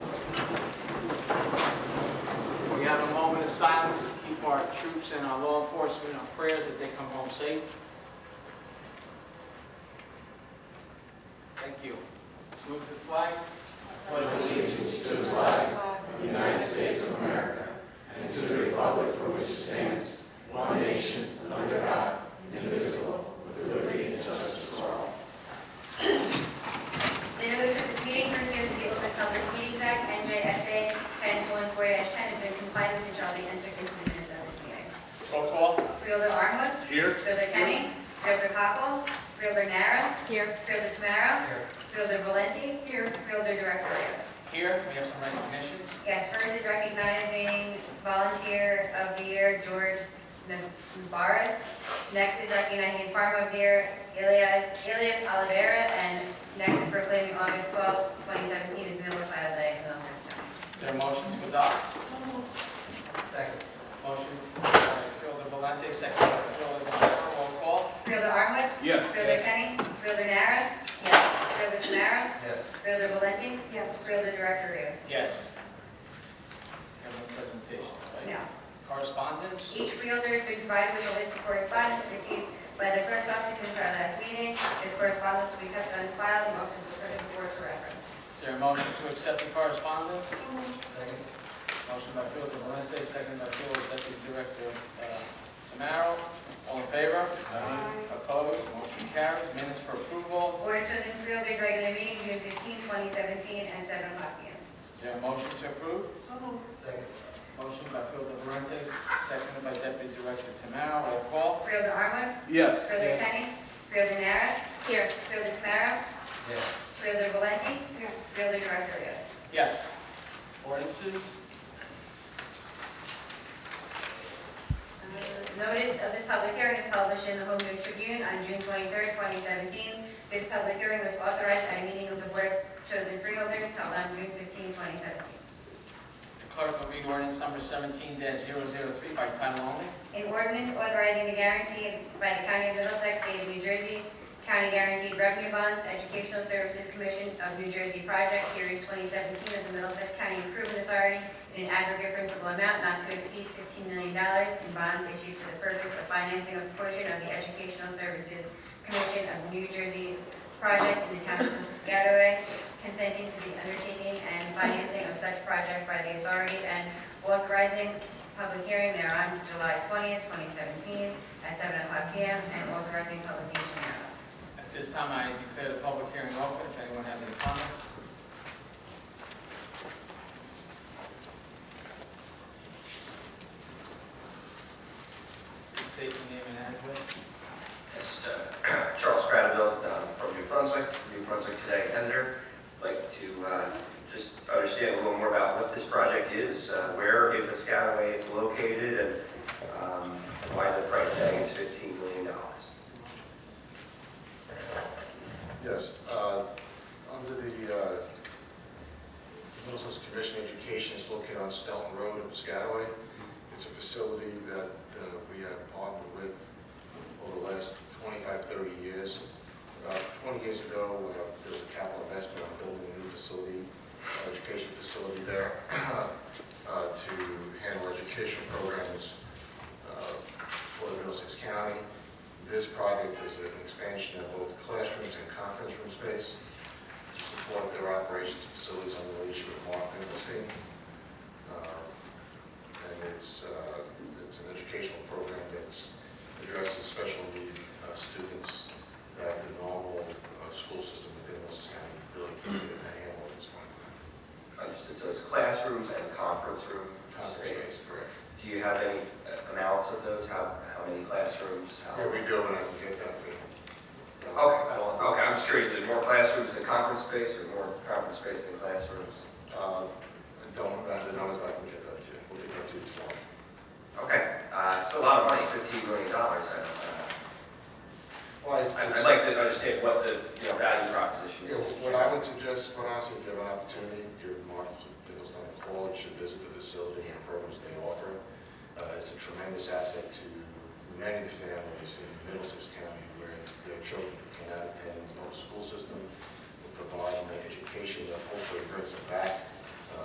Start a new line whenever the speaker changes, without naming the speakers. troops and our law enforcement, our prayers that they come home safe. Thank you. Salute to the flag.
The notice of this meeting pursuant to the Open Public Meetings Act, NJSA 1014-10 has been complied with and shall be entered into the minutes of this meeting.
Roll call.
Freeholder Armwood,
Here.
Freeholder Kenny, Freeholder Cockle, Freeholder Nara,
Here.
Freeholder Tamara,
Here.
Freeholder Valenti, here, Freeholder Director Rios.
Here, we have some recognitions.
Yes, first is recognizing Volunteer of the Year George Mbaris. Next is recognizing Farmer of the Year Ilias, Ilias Oliveira. And next is proclaiming August 12, 2017 as Middle Child Day in Milton County.
Is there a motion to adopt? Second. Motion by Fielder Valente, second by Fielder Montero. Roll call.
Fielder Armwood?
Yes.
Fielder Kenny? Fielder Nara? Yes. Fielder Tamara?
Yes.
Fielder Valenti? Yes. Fielder Director Rios?
Yes. We have no presentation, right?
No.
Correspondence?
Each fielder has been provided with a list of correspondence received by the clerk's office since our last meeting. This correspondence will be kept on file and motions will be the board for reference.
Is there a motion to accept the correspondence? Second. Motion by Fielder Valente, second by Fielder Deputy Director uh, Tamaro. All in favor? Opposed? Motion carries. Minutes for approval.
Board of Chosen Freeholders regular meeting, June 15, 2017, at 7 o'clock p.m.
Is there a motion to approve? Second. Motion by Fielder Valente, seconded by Deputy Director Tamaro. Roll call.
Freeholder Armwood,
Yes.
Freeholder
Yes.
Kenny, Freeholder Nara,
Here.
Freeholder Tamara,
Yes.
Freeholder Valenti, Freeholder Director Rios.
Yes. Ordinances?
Notice of this public hearing is published in the Home News Tribune on June 23, 2017. This public hearing was authorized at a meeting of the Board of Chosen Freeholders held on June 15, 2017.
The clerk will read ordinance number seventeen 3 by title only.
An ordinance authorizing the guarantee by the County of Middlesex, State of New Jersey, County Guaranteed Revenue Bonds, Educational Services Commission of New Jersey Project Series 2017 of the Middlesex County Improvement Authority in an aggregate principal amount not to exceed $15 million in bonds issued for the purpose of financing a portion of the Educational Services Commission of New Jersey Project in the Township of Piscataway, consenting to the undertaking and financing of such project by the authority and authorizing Public hearing thereon, July 20th, 2017, at 7 o'clock PM, and authorizing publication thereof.
At this time, I declare the public hearing open, if anyone has any comments. Please State your name and address.
Yes, uh, Charles Stradiville um, from New Brunswick, New Brunswick Today editor. Like to uh, just understand a little more about what this project is, uh, where in Piscataway it's located, and um, why the price tag is $15 million.
Yes, uh, under the uh, Middlesex Commission on Education is located on Stelton Road in Piscataway. It's a facility that uh, we have partnered with over the last 25, 30 years. About 20 years ago, uh, there was a capital investment on building a new facility, uh, education facility there uh, to handle education programs uh, for the Middlesex County. This project is an expansion of both classrooms and conference room space to support their operations facilities under the leadership of Mark Finkelstein. Uh, And it's, uh, it's an educational program that's addresses special need uh, students that the normal uh, school system within Wilson County really can't get a handle at this point.
Understood, Uh, so it's classrooms and conference room
Conference
space.
space, correct.
Do you have any uh, amounts of those? How how many classrooms? How-
Yeah, we do, and I can get that for you.
Okay,
I don't-
okay, I'm just curious, is it more classrooms than conference space, or more conference space than classrooms?
Uh,
uh,
Uh,